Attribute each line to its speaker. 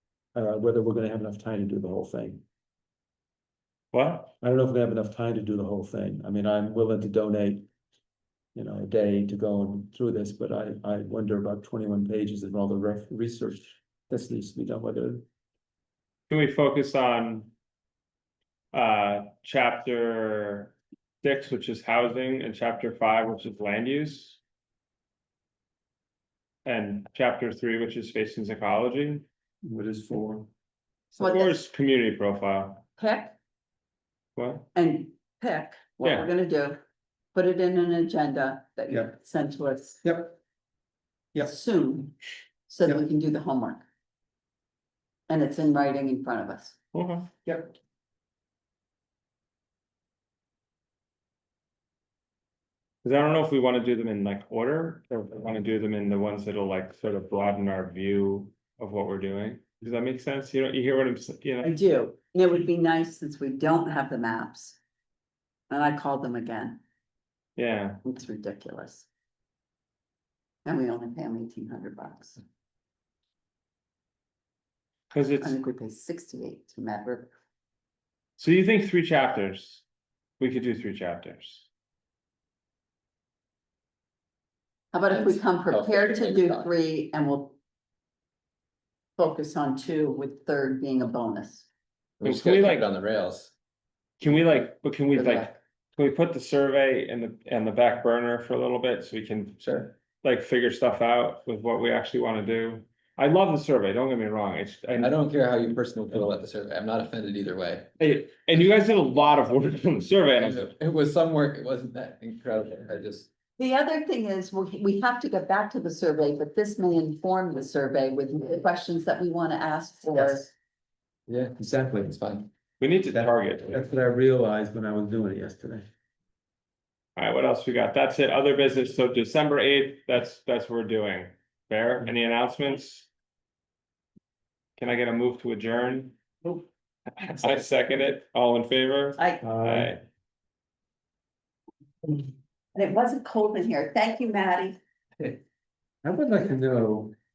Speaker 1: uh, whether we're gonna have enough time to do the whole thing.
Speaker 2: What?
Speaker 1: I don't know if we have enough time to do the whole thing. I mean, I'm willing to donate. You know, a day to go and through this, but I, I wonder about twenty-one pages and all the ref, research. This needs to be done, whether,
Speaker 2: Can we focus on? Uh, chapter six, which is housing, and chapter five, which is land use? And chapter three, which is facing psychology,
Speaker 1: what is for.
Speaker 3: Well,
Speaker 2: or is community profile,
Speaker 3: Pick
Speaker 2: what?
Speaker 3: and pick what
Speaker 2: Yeah.
Speaker 3: we're gonna do. Put it in an agenda that you
Speaker 1: Yeah.
Speaker 3: send to us
Speaker 1: Yep. Yeah.
Speaker 3: soon, so that we can do the homework. And it's in writing in front of us.
Speaker 2: Okay.
Speaker 1: Yep.
Speaker 2: Cause I don't know if we wanna do them in like order, or if we wanna do them in the ones that'll like sort of broaden our view of what we're doing. Does that make sense? You know, you hear what I'm, s- you
Speaker 3: I
Speaker 2: know,
Speaker 3: do, and it would be nice since we don't have the maps. And I called them again,
Speaker 2: yeah,
Speaker 3: it's ridiculous. And we only pay them eighteen hundred bucks,
Speaker 2: cause
Speaker 3: I
Speaker 2: it's,
Speaker 3: think we pay sixty-eight to Mad River.
Speaker 2: so you think three chapters? We could do three chapters.
Speaker 3: How about if we
Speaker 4: That's
Speaker 3: come
Speaker 4: helpful,
Speaker 3: prepared to
Speaker 4: thanks,
Speaker 3: do
Speaker 4: Dawn.
Speaker 3: three and we'll. Focus on two with third being a bonus.
Speaker 4: We just
Speaker 2: Can we,
Speaker 4: gotta keep
Speaker 2: like-
Speaker 4: it on the rails.
Speaker 2: Can we like, but can we
Speaker 3: Good
Speaker 2: like,
Speaker 3: luck.
Speaker 2: can we put the survey in the, in the back burner for a little bit so we can
Speaker 4: Sure.
Speaker 2: like figure stuff out with what we actually wanna do? I love the survey, don't get me wrong, it's, I
Speaker 4: I don't care how you personally feel about the survey. I'm not offended either way.
Speaker 2: Hey, and you guys did a lot of work on the survey, and I was like,
Speaker 4: It was some work. It wasn't that incredible. I just,
Speaker 3: The other thing is, we, we have to get back to the survey, but this may inform the survey with the questions that we wanna ask for.
Speaker 4: Yes. yeah,
Speaker 1: Exactly.
Speaker 4: it's fine.
Speaker 2: we need to
Speaker 1: That-
Speaker 2: target.
Speaker 1: That's what I realized when I was doing it yesterday.
Speaker 2: Alright, what else we got? That's it, other business, so December eighth, that's, that's what we're doing. Fair, any announcements? Can I get a move to adjourn? I second it, all in favor?
Speaker 3: I,
Speaker 2: Aye.
Speaker 3: and it wasn't cold in here, thank you, Maddie.
Speaker 1: I would like to know